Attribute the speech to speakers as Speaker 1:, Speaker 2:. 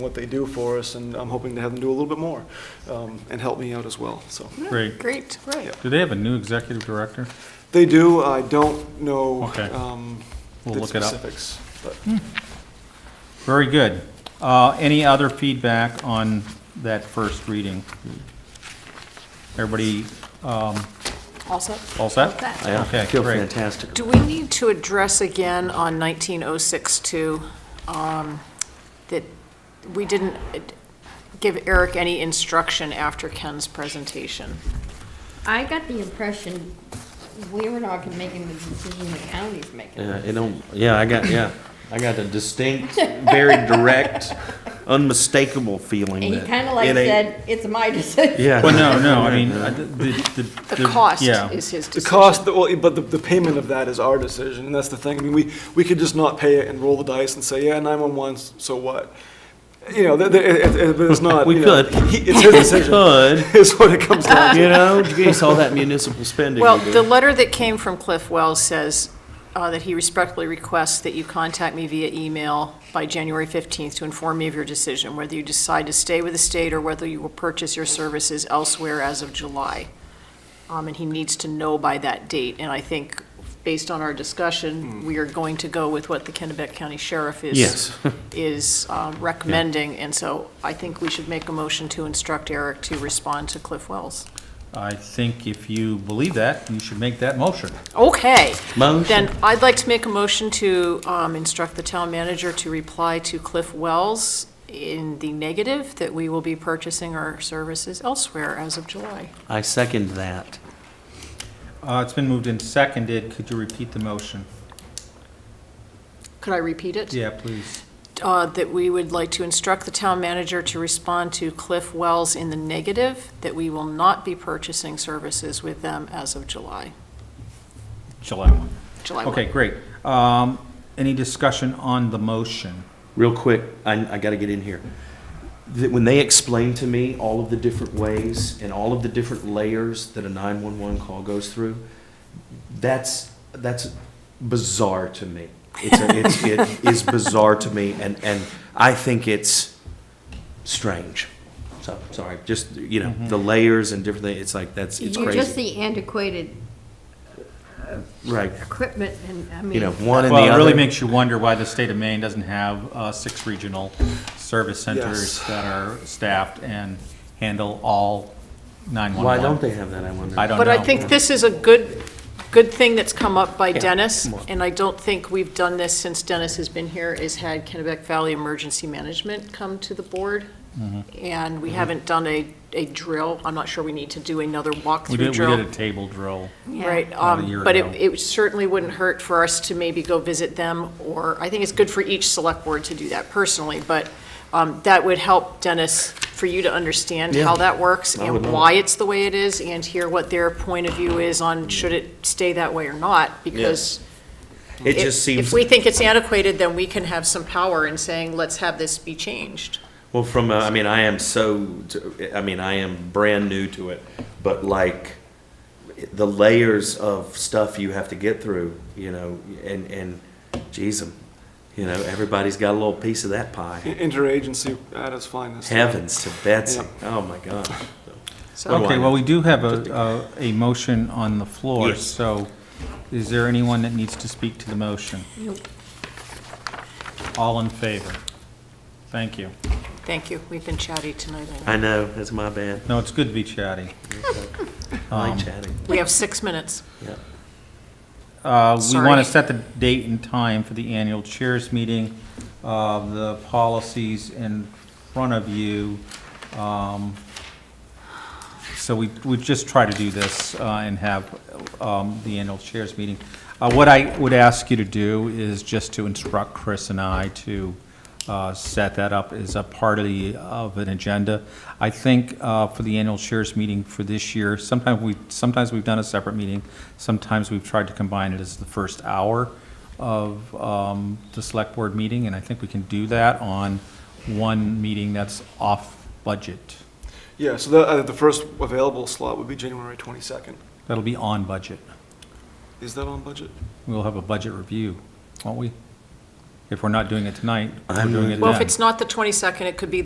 Speaker 1: what they do for us, and I'm hoping to have them do a little bit more um, and help me out as well, so.
Speaker 2: Great.
Speaker 3: Great.
Speaker 1: Right.
Speaker 2: Do they have a new executive director?
Speaker 1: They do, I don't know
Speaker 2: Okay.
Speaker 1: um,
Speaker 2: We'll
Speaker 1: the
Speaker 2: look it up.
Speaker 1: specifics. but-
Speaker 2: Very good. Uh, Any other feedback on that first reading? Everybody um,
Speaker 3: Also.
Speaker 2: all set?
Speaker 3: That.
Speaker 4: Yeah,
Speaker 2: Okay,
Speaker 4: I feel
Speaker 2: great.
Speaker 4: fantastic.
Speaker 3: Do we need to address again on 19062, um, that we didn't uh, give Eric any instruction after Ken's presentation?
Speaker 5: I got the impression we were not making the decision the county's making.
Speaker 4: Yeah, you know, yeah, I got, yeah, I got a distinct, very direct, unmistakable feeling
Speaker 5: And he
Speaker 4: that
Speaker 5: kind of like
Speaker 4: it ain't-
Speaker 5: said, it's my decision.
Speaker 4: Yeah.
Speaker 2: Well, no, no, I mean, I- the, the.
Speaker 3: The cost
Speaker 2: yeah.
Speaker 3: is his
Speaker 1: The
Speaker 3: decision.
Speaker 1: cost, well, but the, the payment of that is our decision, and that's the thing. I mean, we, we could just not pay it and roll the dice and say, yeah, 911, 's, so what? You know, th- th- it- it- but it's not.
Speaker 4: We
Speaker 1: you know,
Speaker 4: could.
Speaker 1: he- It's his decision,
Speaker 4: Could,
Speaker 1: is what it comes down to.
Speaker 4: you know, you guys saw that municipal spending.
Speaker 3: Well,
Speaker 4: we did.
Speaker 3: the letter that came from Cliff Wells says uh, that he respectfully requests that you contact me via email by January 15th to inform me of your decision, whether you decide to stay with the state or whether you will purchase your services elsewhere as of July. Um, And he needs to know by that date. And I think, based on our discussion, we are going to go with what the Kennebec County Sheriff is
Speaker 4: Yes.
Speaker 3: is um, recommending. And so I think we should make a motion to instruct Eric to respond to Cliff Wells.
Speaker 2: I think if you believe that, you should make that motion.
Speaker 3: Okay.
Speaker 4: Motion,
Speaker 3: Then I'd like to make a motion to um, instruct the town manager to reply to Cliff Wells in the negative that we will be purchasing our services elsewhere as of July.
Speaker 4: I second that.
Speaker 2: Uh, It's been moved and seconded. Could you repeat the motion?
Speaker 3: Could I repeat it?
Speaker 2: Yeah, please.
Speaker 3: Uh, That we would like to instruct the town manager to respond to Cliff Wells in the negative that we will not be purchasing services with them as of July,
Speaker 2: July one.
Speaker 3: July 1.
Speaker 2: Okay, great. Um, Any discussion on the motion?
Speaker 4: Real quick, I, I gotta get in here. That when they explained to me all of the different ways and all of the different layers that a nine-one-one call goes through, that's, that's bizarre to me. It's, a- it's, it is bizarre to me, and, and I think it's strange. So, sorry, just, you know, the
Speaker 2: Mm-hmm.
Speaker 4: layers and different, things. it's like, that's, it's
Speaker 5: You're just
Speaker 4: crazy.
Speaker 5: the antiquated
Speaker 4: Right,
Speaker 5: equipment and, I mean.
Speaker 4: you know, one and the other.
Speaker 2: Well, it really makes you wonder why the state of Maine doesn't have uh, six regional service centers
Speaker 1: Yes.
Speaker 2: that are staffed and handle all 911.
Speaker 4: Why don't they have that, I wonder?
Speaker 2: I don't know.
Speaker 3: But I think this is a good, good thing that's come up by
Speaker 2: Yeah,
Speaker 3: Dennis,
Speaker 2: come on.
Speaker 3: and I don't think we've done this since Dennis has been here, is had Kennebec Valley Emergency Management come to the board.
Speaker 2: Mm-hmm.
Speaker 3: And we haven't done a, a drill. I'm not sure we need to do another
Speaker 2: We
Speaker 3: walkthrough
Speaker 2: did, we
Speaker 3: drill.
Speaker 2: did a table drill.
Speaker 3: Right,
Speaker 2: About a
Speaker 3: um,
Speaker 2: year
Speaker 3: but it,
Speaker 2: ago.
Speaker 3: it certainly wouldn't hurt for us to maybe go visit them, or, I think it's good for each select board to do that personally, but um, that would help, Dennis, for you to understand how
Speaker 4: Yeah,
Speaker 3: that works
Speaker 4: I would
Speaker 3: and
Speaker 4: love
Speaker 3: why it's the way it is, and hear what their point of view is on should it stay that way or not, because
Speaker 4: It
Speaker 3: if-
Speaker 4: just seems.
Speaker 3: If we think it's antiquated, then we can have some power in saying, let's have this be changed.
Speaker 4: Well, from uh, I mean, I am so I mean, I am brand new to it, but like the layers of stuff you have to get through, you know, and and geez, um, you know, everybody's got a little piece of that pie.
Speaker 1: Interagency at its finest.
Speaker 4: Heavens to Betsy! Oh my God!
Speaker 3: So,
Speaker 4: What do I
Speaker 2: Okay, well,
Speaker 4: know?
Speaker 2: we do have a, a- a motion on the floor,
Speaker 4: Yes.
Speaker 2: so is there anyone that needs to speak to the motion? All in favor? Thank you.
Speaker 3: thank you, we've been chatty tonight. I know.
Speaker 4: I know that's my bad.
Speaker 2: No, it's good to be chatty.
Speaker 4: I like chatting.
Speaker 3: We have six minutes.
Speaker 4: Yeah.
Speaker 2: Uh, We
Speaker 3: Sorry.
Speaker 2: want to set the date and time for the annual chairs meeting. Uh, The policies in front of you. um, So we, we just try to do this uh, and have um, the annual chairs meeting. Uh, What I would ask you to do is just to instruct Chris and I to uh, set that up as a part of the, of an agenda. I think uh, for the annual chairs meeting for this year, sometimes we, sometimes we've done a separate meeting, sometimes we've tried to combine it as the first hour of um, the select board meeting, and I think we can do that on one meeting that's off budget.
Speaker 1: Yeah, so the, uh, the first available slot would be January 22nd.
Speaker 2: That'll be on budget.
Speaker 1: Is that on budget?
Speaker 2: We'll have a budget review, won't we? If we're not doing it tonight, we're
Speaker 4: I'm
Speaker 2: doing it
Speaker 4: not-
Speaker 2: then.
Speaker 3: Well, if it's not the 22nd, it could be